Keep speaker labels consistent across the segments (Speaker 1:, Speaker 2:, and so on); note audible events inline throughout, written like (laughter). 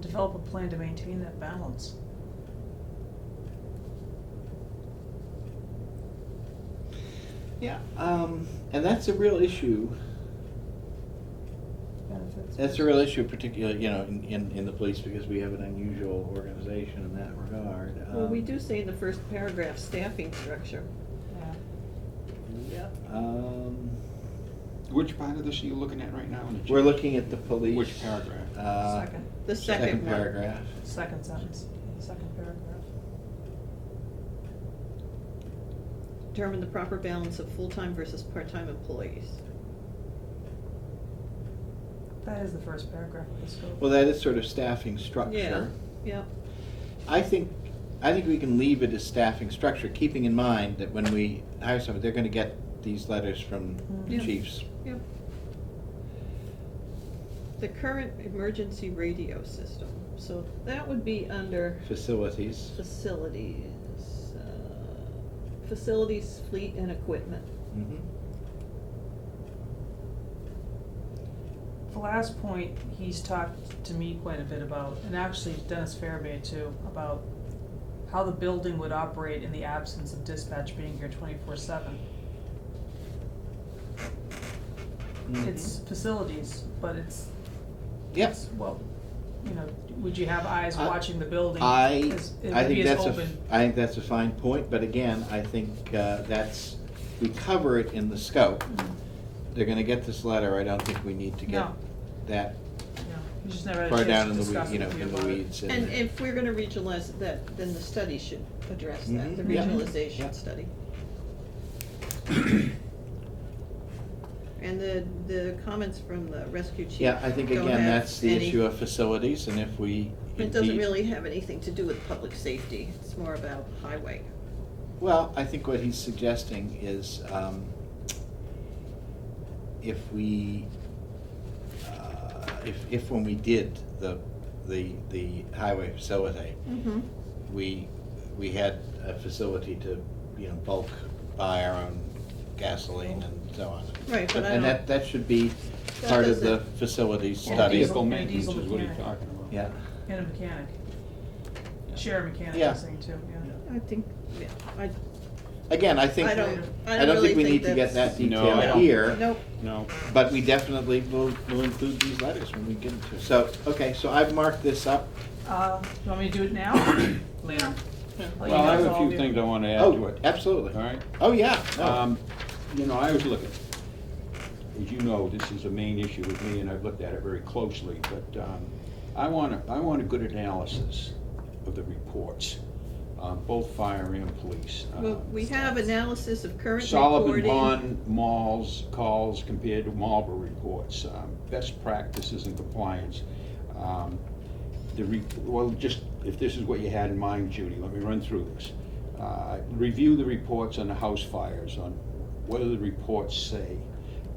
Speaker 1: develop a plan to maintain that balance.
Speaker 2: Yeah, um, and that's a real issue. That's a real issue, particularly, you know, in, in, in the police, because we have an unusual organization in that regard.
Speaker 3: Well, we
Speaker 2: Um,
Speaker 3: do say in the first paragraph, staffing structure.
Speaker 1: Yeah.
Speaker 2: Yep. Um,
Speaker 4: Which part of this are you looking at right now? in the
Speaker 2: we're
Speaker 4: chat?
Speaker 2: looking at the police.
Speaker 4: Which paragraph?
Speaker 2: uh,
Speaker 1: Second,
Speaker 3: The second
Speaker 2: Second
Speaker 3: one.
Speaker 2: paragraph.
Speaker 1: second sentence, second paragraph.
Speaker 3: Determine the proper balance of full-time versus part-time employees.
Speaker 1: That is the first paragraph of the scope.
Speaker 2: Well, that is sort of staffing
Speaker 3: Yeah,
Speaker 2: structure.
Speaker 3: yeah.
Speaker 2: I think, I think we can leave it as staffing structure, keeping in mind that when we hire someone, they're gonna get these letters from
Speaker 1: Mm.
Speaker 2: the
Speaker 3: Yeah.
Speaker 2: chiefs.
Speaker 3: Yep. The current emergency radio system, so that would be under
Speaker 2: Facilities.
Speaker 3: facilities, uh, facilities, fleet and equipment.
Speaker 2: Mhm.
Speaker 1: The last point, he's talked to me quite a bit about, and actually Dennis Farabee too, about how the building would operate in the absence of dispatch being here twenty-four seven.
Speaker 2: Mm-hmm.
Speaker 1: It's facilities, but it's,
Speaker 2: Yep.
Speaker 1: it's, well, you know, would you have eyes
Speaker 2: I-
Speaker 1: watching the building?
Speaker 2: I,
Speaker 1: Is- it
Speaker 2: I
Speaker 1: would be
Speaker 2: think
Speaker 1: as
Speaker 2: that's a, f-
Speaker 1: open.
Speaker 2: I think that's a fine point, but again, I think uh, that's, we cover it in the scope.
Speaker 1: Mhm.
Speaker 2: They're gonna get this letter, I don't think we need to get
Speaker 1: No.
Speaker 2: that
Speaker 1: Yeah, you just never had
Speaker 2: far
Speaker 1: a chance
Speaker 2: down
Speaker 1: to
Speaker 2: in the,
Speaker 1: discuss
Speaker 2: weed- you know,
Speaker 1: with you
Speaker 2: in the
Speaker 1: about it.
Speaker 2: weeds.
Speaker 3: And if we're gonna regionalize that, then the study should address that, the
Speaker 2: Mhm.
Speaker 1: Yeah.
Speaker 2: Yeah.
Speaker 3: regionalization study. And the, the comments from the rescue chief.
Speaker 2: Yeah, I think
Speaker 3: don't
Speaker 2: again,
Speaker 3: have
Speaker 2: that's the
Speaker 3: any-
Speaker 2: issue of facilities, and if we.
Speaker 3: It doesn't
Speaker 2: indeed-
Speaker 3: really have anything to do with public safety, it's more about highway.
Speaker 2: Well, I think what he's suggesting is um, if we, uh, if, if when we did the, the, the highway facility,
Speaker 3: Mm-hmm.
Speaker 2: we, we had a facility to, you know, bulk buy our own gasoline and so on.
Speaker 3: Right, but I
Speaker 2: And
Speaker 3: don't-
Speaker 2: that, that should be
Speaker 3: That
Speaker 2: part of the
Speaker 3: doesn't-
Speaker 2: facilities
Speaker 1: Well,
Speaker 2: study.
Speaker 1: diesel-
Speaker 4: Vehicle
Speaker 1: and
Speaker 4: maintenance
Speaker 1: diesel
Speaker 4: is what he's
Speaker 1: mechanic.
Speaker 4: talking about.
Speaker 2: Yeah.
Speaker 1: And a mechanic, share a mechanic,
Speaker 2: Yeah.
Speaker 1: I think too, yeah.
Speaker 3: I think, yeah, I,
Speaker 2: Again, I think,
Speaker 3: I don't, I
Speaker 2: I don't
Speaker 3: really
Speaker 2: think we need to get
Speaker 3: that's-
Speaker 2: that
Speaker 4: No,
Speaker 2: detail
Speaker 4: I don't.
Speaker 2: here.
Speaker 3: Nope,
Speaker 4: No,
Speaker 2: But we definitely will, will include these letters when we get into it. So, okay, so I've marked this up.
Speaker 1: Uh, do you want me to do it
Speaker 2: (coughs)
Speaker 1: now? Later? Well, you
Speaker 4: well, I
Speaker 1: guys
Speaker 4: have a
Speaker 1: all do.
Speaker 4: few things I wanna add to
Speaker 2: Oh,
Speaker 4: it,
Speaker 2: absolutely.
Speaker 4: all right?
Speaker 2: Oh, yeah, no,
Speaker 4: Um, you know, I was looking, as you know, this is a main issue with me, and I've looked at it very closely, but, um, I want a, I want a good analysis of the reports, um, both fire and police. uh,
Speaker 3: well, we have analysis of current
Speaker 4: Solomon
Speaker 3: reporting.
Speaker 4: Bond malls calls compared to Marlboro reports, um, best practices and compliance. Um, The, re- well, just, if this is what you had in mind, Judy, let me run through this. Uh, Review the reports on the house fires, on what do the reports say?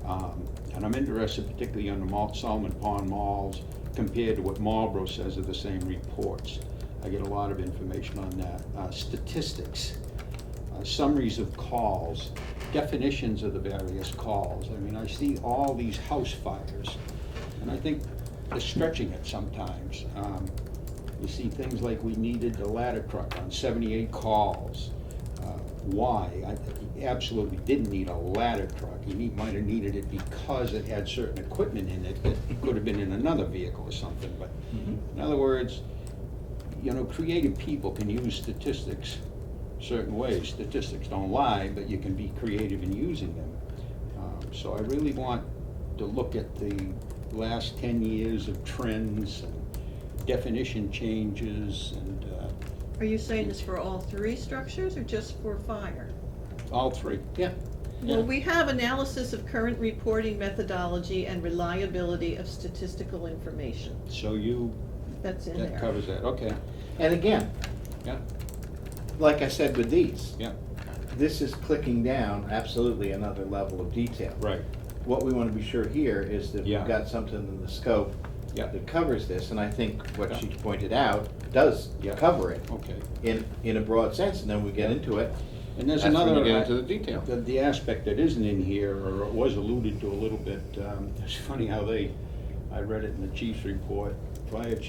Speaker 4: Um, And I'm interested particularly on the Malt Solomon Pond malls compared to what Marlboro says of the same reports. I get a lot of information on that. Uh, Statistics uh, summaries of calls, definitions of the various calls. I mean, I see all these house fires, and I think they're stretching it sometimes. Um, You see things like we needed the ladder truck on seventy-eight calls. Uh, Why? I he absolutely didn't need a ladder truck. He need- might have needed it because it had certain equipment in it that could have been in another vehicle or something, but in other words, you know, creative people can use statistics certain ways. Statistics don't lie, but you can be creative in using them. Um, So I really want to look at the last ten years of trends and definition changes and uh,
Speaker 3: Are you saying this for all three structures or just for fire?
Speaker 4: all three.
Speaker 2: yeah.
Speaker 3: Well, we have analysis of current reporting methodology and reliability of statistical information.
Speaker 4: So you,
Speaker 3: That's in
Speaker 4: that
Speaker 3: there.
Speaker 4: covers that, okay,
Speaker 2: And again,
Speaker 4: yeah,
Speaker 2: like I said with these,
Speaker 4: yeah,
Speaker 2: this is clicking down absolutely another level of detail.
Speaker 4: right,
Speaker 2: What we want to be sure here is that we've
Speaker 4: Yeah.
Speaker 2: got something in the scope
Speaker 4: yeah,
Speaker 2: that covers this, and I think what
Speaker 4: Yeah.
Speaker 2: she pointed out does
Speaker 4: Yeah.
Speaker 2: cover it
Speaker 4: okay.
Speaker 2: in, in a broad sense, and then we get into it.
Speaker 4: And there's
Speaker 2: That's when
Speaker 4: another.
Speaker 2: you get into the detail.
Speaker 4: The, the aspect that isn't in here, or it was (laughs) alluded to a little bit, um, it's funny how they, I read it in the chief's report, fire chief